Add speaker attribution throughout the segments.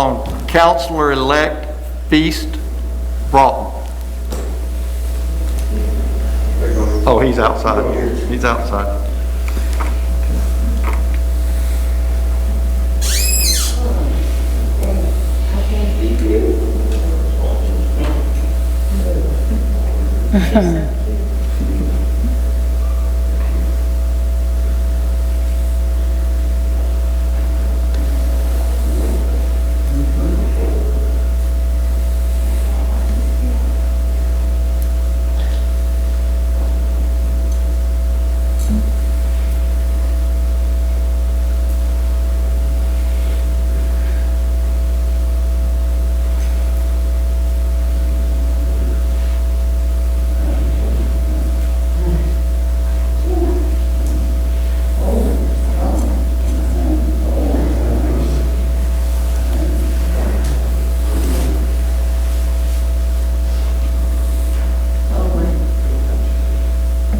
Speaker 1: on Counselor-elect Feast Broughton. Oh, he's outside. He's outside.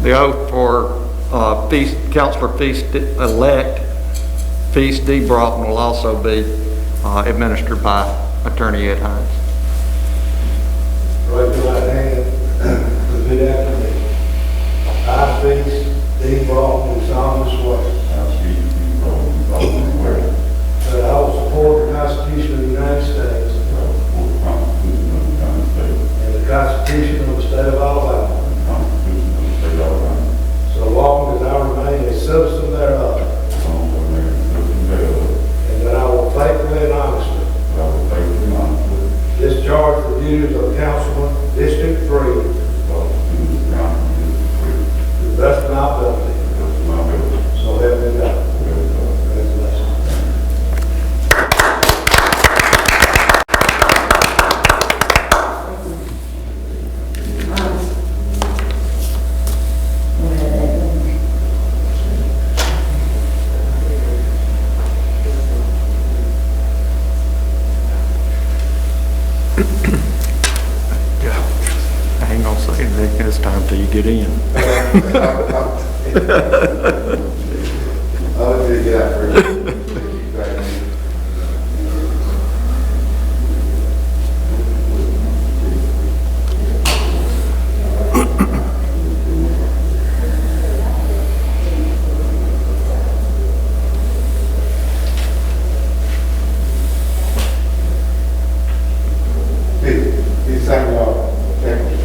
Speaker 1: The oath for uh, Feast, Counselor Feast-elect Feast D. Broughton will also be uh, administered by Attorney Ed Hines.
Speaker 2: Raise your right hand, repeat after me. I, Feast D. Baldwin, do solemnly swear
Speaker 3: I speak to you, Roman, Roman, where
Speaker 2: that I will support the Constitution of the United States
Speaker 3: I will support the Constitution of the United States
Speaker 2: and the Constitution of the State of Alabama,
Speaker 3: and the Constitution of the State of Alabama,
Speaker 2: so long as I remain a citizen thereof,
Speaker 3: as long as I remain a citizen thereof,
Speaker 2: and that I will faithfully and honestly
Speaker 3: that I will faithfully and honestly
Speaker 2: discharge the duties of councilman, District Three,
Speaker 3: discharge the duties of council district three
Speaker 2: to the best of my ability,
Speaker 3: to the best of my ability,
Speaker 2: so help me God.
Speaker 3: so help me God.
Speaker 2: Congratulations.
Speaker 1: I ain't gonna say anything this time till you get in.
Speaker 2: I'll do that for you. Please, please sign your, thank you.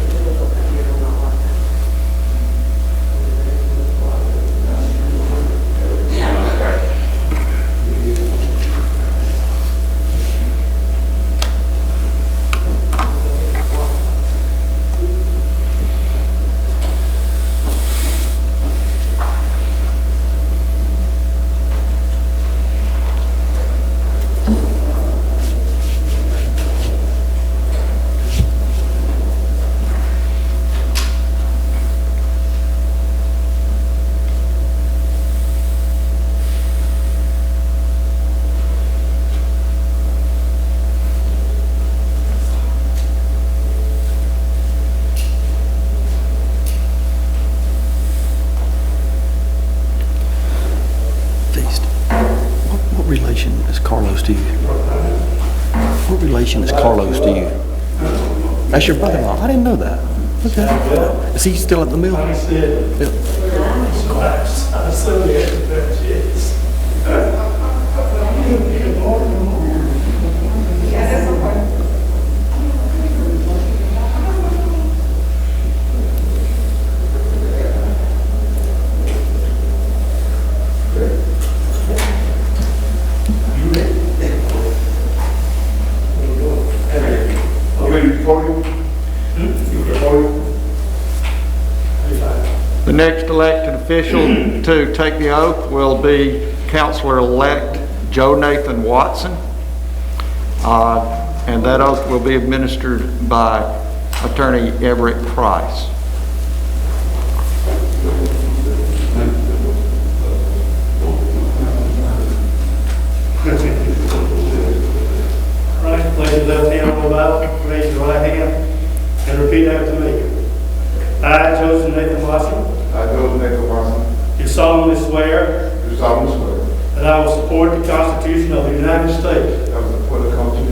Speaker 4: Feast. What, what relation is Carlos to you? What relation is Carlos to you? That's your brother-in-law. I didn't know that. Okay. Is he still at the mill?
Speaker 2: You ready to podium? You ready to podium?
Speaker 1: The next elected official to take the oath will be Counselor-elect Joe Nathan Watson. Uh, And that oath will be administered by Attorney Everett Price.
Speaker 5: Right, place your left hand on the Bible, raise your right hand, and repeat after me. I, Joseph Nathan Watson,
Speaker 2: I, Joe Nickel Watson,
Speaker 5: do solemnly swear
Speaker 2: do solemnly swear
Speaker 5: that I will support the Constitution of the United States
Speaker 2: that I will support the